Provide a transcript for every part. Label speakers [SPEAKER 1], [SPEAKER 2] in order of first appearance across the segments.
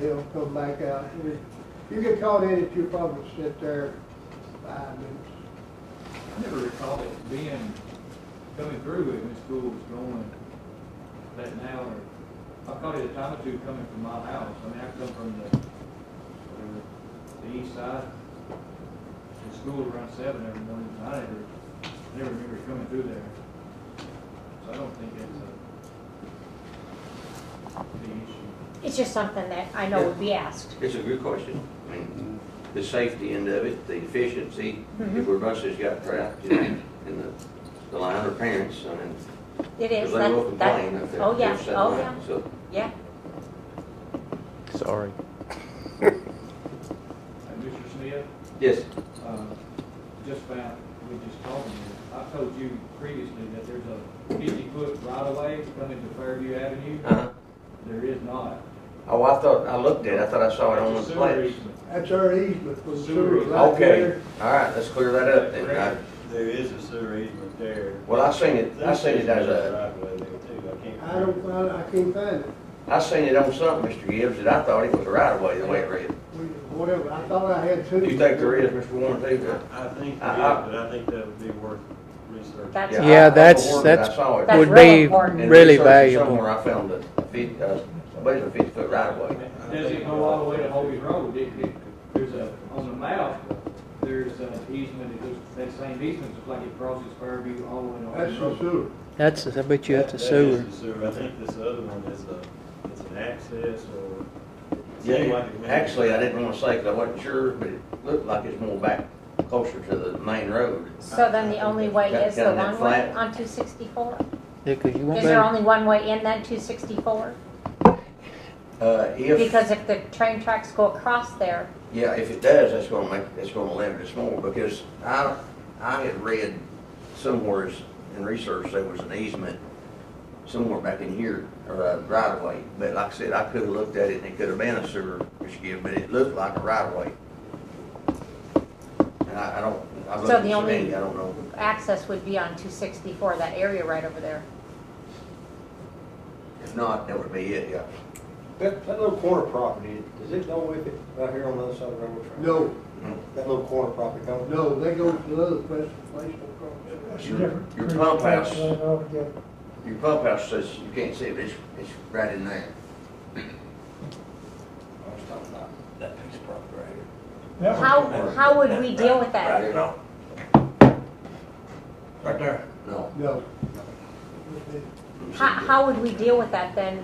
[SPEAKER 1] they'll come back out. If You get caught in it, you'll probably sit there five minutes.
[SPEAKER 2] I never recall it being, coming through it when school was going that now, or, I caught it a time or two coming from my house, I mean, I come from the, whatever, the east side. And school was around seven every morning, and I never, I never remember it coming through there. So I don't think that's a big issue.
[SPEAKER 3] It's just something that I know would be asked.
[SPEAKER 4] It's a good question. I mean, the safety end of it, the efficiency, if
[SPEAKER 3] Mhm.
[SPEAKER 4] our buses got trapped, you know, in the, the line or parents, I mean,
[SPEAKER 3] It
[SPEAKER 4] 'cause
[SPEAKER 3] is.
[SPEAKER 4] they will
[SPEAKER 3] that- that-
[SPEAKER 4] complain if they're.
[SPEAKER 3] Oh, yeah,
[SPEAKER 4] if they're
[SPEAKER 3] oh, yeah,
[SPEAKER 4] sat down. So,
[SPEAKER 3] yeah.
[SPEAKER 5] Sorry.
[SPEAKER 2] And Mr. Smith,
[SPEAKER 4] yes,
[SPEAKER 2] uh, just found, we just told them, I told you previously that there's a fifty-foot right-of-way coming to Fairview Avenue.
[SPEAKER 4] uh-huh.
[SPEAKER 2] There is not.
[SPEAKER 4] Oh, I thought, I looked at it, I thought I saw it Oh, on
[SPEAKER 2] It's
[SPEAKER 4] one
[SPEAKER 2] a sewer
[SPEAKER 4] place.
[SPEAKER 2] easement.
[SPEAKER 1] That's our easement for the
[SPEAKER 2] Sewer.
[SPEAKER 1] sewer right
[SPEAKER 4] Okay,
[SPEAKER 1] there.
[SPEAKER 4] all right, let's clear that up then. I-
[SPEAKER 6] There is a sewer easement there.
[SPEAKER 4] Well, I seen it, I seen it as a,
[SPEAKER 6] Right away there too, I can't.
[SPEAKER 1] I don't find, I can't find it.
[SPEAKER 4] I seen it on something, Mr. Gibbs, that I thought it was a right of way, the way it read.
[SPEAKER 1] We- Whatever, I thought I had two.
[SPEAKER 4] Do you think there is, Mr. Warren, too?
[SPEAKER 6] I think there
[SPEAKER 4] I-
[SPEAKER 6] is,
[SPEAKER 4] I-
[SPEAKER 6] but I think that would be worth researching.
[SPEAKER 3] That's-
[SPEAKER 4] I-
[SPEAKER 5] Yeah,
[SPEAKER 4] I
[SPEAKER 5] that's-
[SPEAKER 4] overworked it,
[SPEAKER 5] that's-
[SPEAKER 4] I saw it.
[SPEAKER 3] That's
[SPEAKER 5] Would
[SPEAKER 3] really
[SPEAKER 5] be
[SPEAKER 4] And
[SPEAKER 3] important.
[SPEAKER 5] really
[SPEAKER 4] researching
[SPEAKER 5] valuable.
[SPEAKER 4] Somewhere I found a fifty, uh, somebody's a fifty foot right of way.
[SPEAKER 2] Does it go all the way to Hobie Road? It, it, there's a, on the map, there's an easement, it goes, that same easement, just like it crosses Fairview all the way to
[SPEAKER 1] That's
[SPEAKER 2] Hobie
[SPEAKER 1] the
[SPEAKER 2] Road.
[SPEAKER 1] sewer.
[SPEAKER 5] That's, I bet you that's a
[SPEAKER 6] That- that is
[SPEAKER 5] sewer.
[SPEAKER 6] the sewer. I think this other one is a, it's an access or. it seemed
[SPEAKER 4] Yeah,
[SPEAKER 6] like it may-
[SPEAKER 4] actually, I didn't wanna say, cause I wasn't sure, but it looked like it's more back, closer to the main road.
[SPEAKER 3] So then the only way
[SPEAKER 4] Got-
[SPEAKER 3] is the
[SPEAKER 4] got that
[SPEAKER 3] one way
[SPEAKER 4] flat.
[SPEAKER 3] on two sixty-four?
[SPEAKER 5] Yeah, 'cause you won't
[SPEAKER 3] Is
[SPEAKER 5] be,
[SPEAKER 3] there
[SPEAKER 5] able-
[SPEAKER 3] only one way in then, two sixty-four?
[SPEAKER 4] Uh, if,
[SPEAKER 3] Because if the train tracks go across there,
[SPEAKER 4] yeah, if it does, that's gonna make, it's gonna limit us more, because I, I had read somewheres in research, there was an easement somewhere back in here, or a right of way, but like I said, I could've looked at it and it could've been a sewer, which give, but it looked like a right of way. And I, I don't, I've
[SPEAKER 3] So
[SPEAKER 4] looked at
[SPEAKER 3] the
[SPEAKER 4] so
[SPEAKER 3] only-
[SPEAKER 4] many, I don't know.
[SPEAKER 3] access would be on two sixty-four, that area right over there.
[SPEAKER 4] If not, that would be it, yeah.
[SPEAKER 7] That, that little corner property, does it go with it right here on the other side of the railroad track?
[SPEAKER 1] No,
[SPEAKER 7] That little corner property don't?
[SPEAKER 1] no, they go to the other place, place across.
[SPEAKER 4] Your your pump house, your pump house says you can't see it, but it's, it's right in there. I was talking about that piece of property right here.
[SPEAKER 3] How, how would we deal with
[SPEAKER 4] Right
[SPEAKER 3] that?
[SPEAKER 4] here, no. Right there? No.
[SPEAKER 1] No.
[SPEAKER 3] How, how would we deal with that then?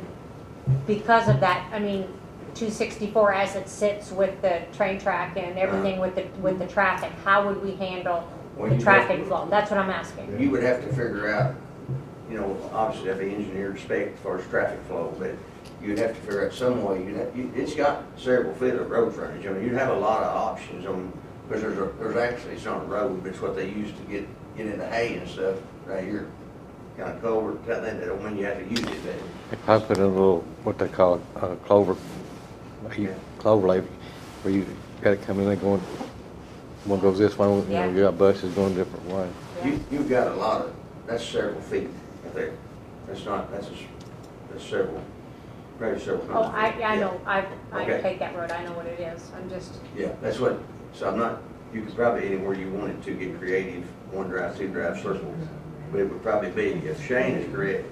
[SPEAKER 3] Because of that, I mean, two sixty-four as it sits with the train track
[SPEAKER 4] Uh-huh.
[SPEAKER 3] and everything with the, with the traffic, how would we handle
[SPEAKER 4] Well,
[SPEAKER 3] the
[SPEAKER 4] you'd
[SPEAKER 3] traffic
[SPEAKER 4] have to-
[SPEAKER 3] flow? That's what I'm asking.
[SPEAKER 4] You would have to figure out, you know, obviously that'd be engineered spec as far as traffic flow, but you'd have to figure out some way, you'd have, you- it's got several feet of road frontage, I mean, you'd have a lot of options on, because there's a, there's actually, it's not a road, but it's what they use to get, get into hay and stuff, right here. Kind of culvert, kind of thing, that when you have to use it, but
[SPEAKER 8] I put in a little, what they call uh, clover, you- clover lane, where you got it coming in, and going, one goes this way, you
[SPEAKER 3] Yeah.
[SPEAKER 8] know, you got buses going different way.
[SPEAKER 4] you, you've got a lot of, that's several feet right there. That's not, that's, a s- that's several, probably several. hundred
[SPEAKER 3] Oh, I,
[SPEAKER 4] feet.
[SPEAKER 3] I
[SPEAKER 4] Yeah.
[SPEAKER 3] know, I, I
[SPEAKER 4] Okay.
[SPEAKER 3] take that road, I know what it is, I'm just,
[SPEAKER 4] Yeah, that's what, so I'm not, you could probably anywhere you wanted to get creative, one drive, two drive, circle. But it would probably be, if Shane is correct,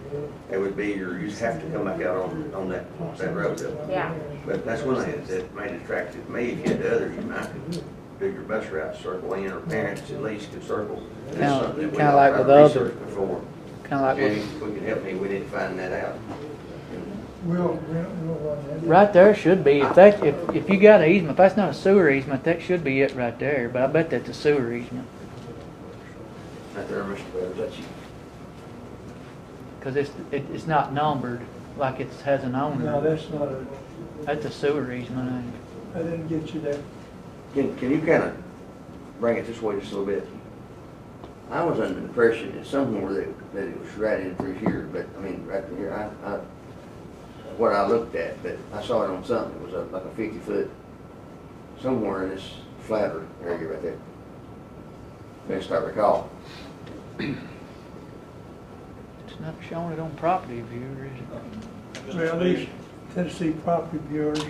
[SPEAKER 4] it would be your, you'd have to come back out on, on that, that road though.
[SPEAKER 3] yeah.
[SPEAKER 4] But that's one thing that made it attractive to me. If you had the other, you might could do your bus route, circle in, or parents at least could circle. And that's
[SPEAKER 5] Kinda-
[SPEAKER 4] something that we
[SPEAKER 5] kinda
[SPEAKER 4] don't
[SPEAKER 5] like
[SPEAKER 4] try to
[SPEAKER 5] with the other.
[SPEAKER 4] research Before,
[SPEAKER 5] kinda like,
[SPEAKER 4] Jenny,
[SPEAKER 5] with-
[SPEAKER 4] if we could help me, we didn't find that out.
[SPEAKER 7] We'll, we'll run
[SPEAKER 5] right there should be, if that, if, if you got an easement, if that's not a sewer easement, that should be it right there, but I bet that's a sewer easement.
[SPEAKER 4] Not there, Mr. Webbs, that's you.
[SPEAKER 5] Cause it's, it, it's not numbered, like it has an
[SPEAKER 7] No,
[SPEAKER 5] owner.
[SPEAKER 7] that's not a,
[SPEAKER 5] That's a sewer easement, ain't it?
[SPEAKER 7] I didn't get you there.
[SPEAKER 4] Can, can you kind of bring it this way just a little bit? I was under the impression that somewhere that, that it was right in through here, but, I mean, right through here, I, I, what I looked at, but I saw it on something, it was a- like a fifty foot, somewhere in this flatter area right there. Best I recall.
[SPEAKER 5] It's not showing it on property view, is it?
[SPEAKER 2] Mr.
[SPEAKER 7] Well,
[SPEAKER 2] Smith,
[SPEAKER 7] these Tennessee property bureaus